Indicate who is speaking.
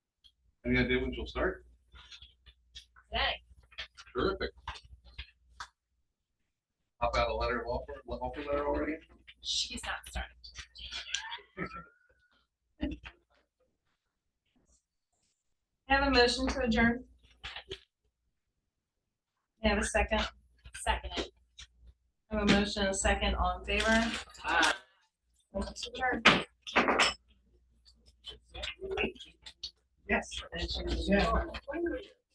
Speaker 1: Any idea when she'll start?
Speaker 2: today.
Speaker 1: Terrific. Pop out a letter of offer, offer letter already?
Speaker 2: She's not starting. Have a motion to adjourn. Have a second. Second. Have a motion, and a second, all in favor? Aye. Adjourn. Yes.
Speaker 3: Yeah.